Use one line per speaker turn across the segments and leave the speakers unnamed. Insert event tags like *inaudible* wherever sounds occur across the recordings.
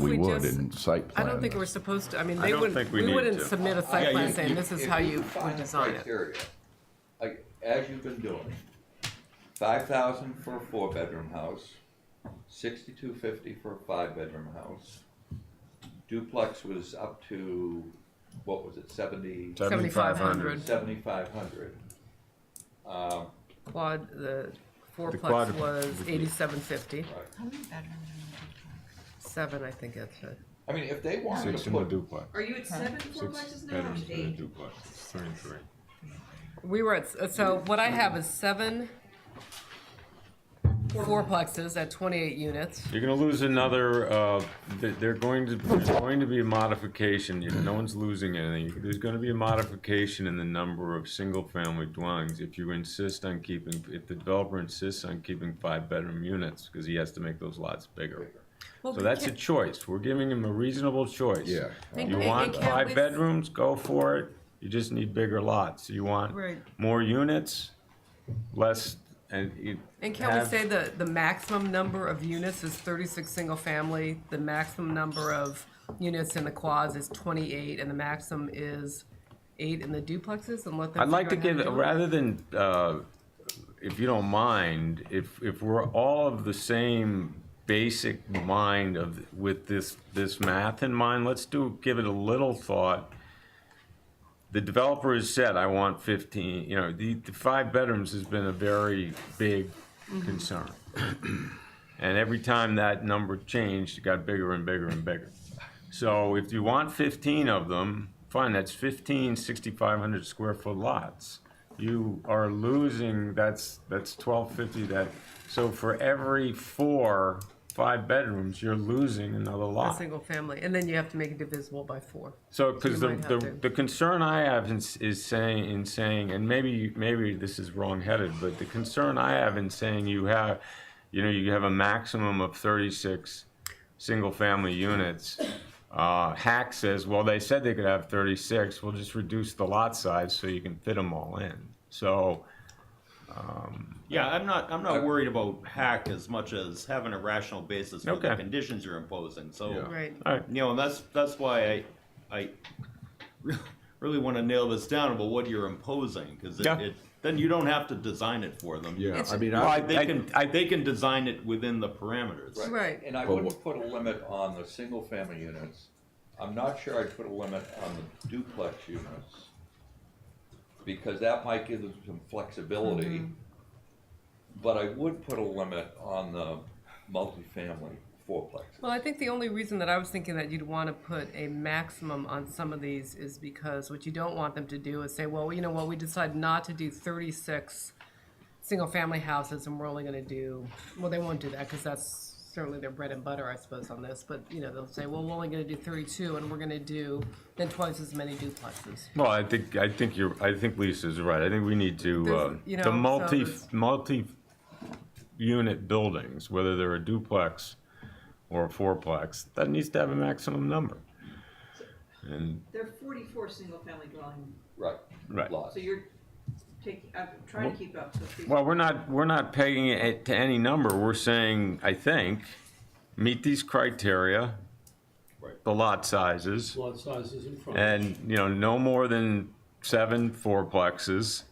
we
we
would
just-
in site
I
plan.
don't think we're supposed to, I mean, they
don't
wouldn't,
think we
we
need
wouldn't
to.
submit a
Yeah,
site
you-
plan saying this is how you
define
would
the
design it.
criteria, Like, as you've been doing, five thousand for a four-bedroom house, sixty-two fifty for a five-bedroom house. Duplex was up to, what was it, seventy,
Seventy-five hundred
seventy-five hundred? Um,
quad, the fourplex
quad-
was eighty-seven fifty,
right,
How many bedrooms are in a duplex?
seven, I think that's it.
I mean, if they wanted
Six
to
in the
put,
duplex.
Are you at seven fourplexes now or
Bedrooms in a
eight?
duplex, three and three.
We were at, so what I have is seven fourplexes at twenty-eight units.
You're gonna lose another, uh, th- they're going to, there's going to be a modification, if no one's losing anything, there's gonna be a modification in the number of single-family dwellings if you insist on keeping, if the developer insists on keeping five-bedroom units, because he has to make those lots bigger.
Well,
So that's a
can't-
choice, we're giving him a reasonable choice.
Yeah.
And-
You
and-
want
and can't
five
we-
bedrooms, go for it, you just need bigger lots, you want
Right.
more units, less, and you.
And can we
have-
say the, the maximum number of units is thirty-six single-family, the maximum number of units in the quads is twenty-eight, and the maximum is eight in the duplexes, and let them.
I'd like to
figure out
give,
how do it?
rather than, uh, if you don't mind, if, if we're all of the same basic mind of, with this, this math in mind, let's do, give it a little thought. The developer has said, I want fifteen, you know, the, the five bedrooms has been a very big concern. And every time that number changed, it got bigger and bigger and bigger. So if you want fifteen of them, fine, that's 15 6,500 square foot lots. You are losing, that's, that's twelve fifty, that, so for every four, five bedrooms, you're losing another
A
lot.
single family, and then you have to make it divisible by four.
So, because
You
the,
might have
the,
to.
the concern I have is, is saying, in saying, and maybe, maybe this is wrongheaded, but the concern I have in saying you have, you know, you have a maximum of thirty-six single-family units. Uh, Hack says, well, they said they could have thirty-six, we'll just reduce the lot size so you can fit them all in. So,
Yeah, I'm not, I'm
Uh,
not worried about hack as much as having a rational basis for
Okay.
the conditions you're imposing, so.
Right.
all right,
You know, and that's, that's why I, I *laughs* really wanna nail this down about what you're imposing, cause it,
Yeah.
it, then you don't have to design it for them.
Yeah,
It's-
I mean,
Well,
I,
I-
They can, they can design it within the parameters.
Right.
and I
But
wouldn't put a limit on the single-family units. I'm not sure I'd put a limit on the duplex units. Because that might give them some flexibility.
Mm-hmm.
But I would put a limit on the multifamily fourplex.
Well, I think the only reason that I was thinking that you'd want to put a maximum on some of these is because what you don't want them to do is say, well, you know what, we decided not to do thirty-six single-family houses and we're only gonna do, well, they won't do that because that's certainly their bread and butter, I suppose, on this, but, you know, they'll say, well, we're only gonna do thirty-two and we're gonna do then twice as many duplexes.
Well, I think, I think you're, I think Lisa's right. I think we need to,
There's-
uh,
you know,
the
so
multi,
it's-
multi-unit buildings, whether they're a duplex or a fourplex, that needs to have a maximum number. And,
There are forty-four single-family dwelling,
Right.
Right.
Lots.
so you're taking, I'm trying to keep up, so please.
well, we're not, we're not pegging it to any number. We're saying, I think, meet these criteria, the lot sizes,
lot sizes in front.
and, you know, no more than seven fourplexes,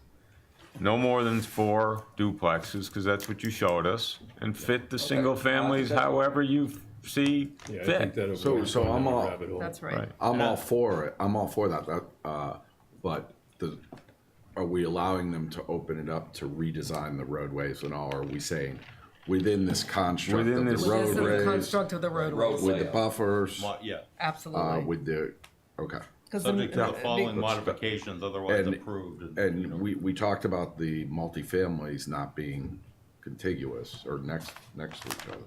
no more than four duplexes, because that's what you showed us, and fit the
Uh,
single families however you see
Yeah, I think
fit.
that'll.
So- so I'm all-
That's right.
Right.
I'm all for it. I'm all for that. That, uh, but the, are we allowing them to open it up to redesign the roadways and all? Or are we saying within this construct of
Within this-
the
This is the
roadways,
construct of the roadways,
with the buffers,
Mo- Yeah,
uh,
absolutely.
with the, okay.
'Cause the-
subject to the following
be-
modifications, otherwise
And-
approved. and, you know.
And we, we talked about the multifamilies not being contiguous or next, next to each other.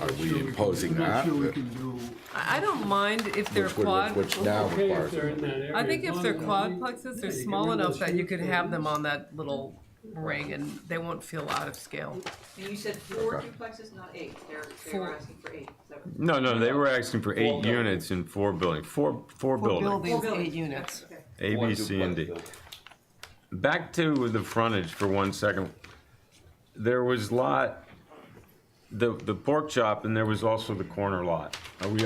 Are we imposing that?
I'm not sure we can do.
I I don't mind if they're
Which would-
quad.
Which now
Okay, if
requires.
they're in that area.
I think
as
if
long
they're
as-
quadplexes,
Yeah,
they're
you can
small
run
enough
those
that you
huge
could have them
buildings.
on that little ring and they won't feel out of scale.
And you said four
Okay.
duplexes, not eight, they're, they were
Four.
asking for eight, so.
No, no, they were asking for eight
buildings.
units in four buildings, four, four buildings,
Four
buildings, eight
buildings,
units.
okay.
A,
One
B, C, and D.
duplex building.
Back to the frontage for one second. There was lot, the, the pork chop, and there was also the corner lot. Are we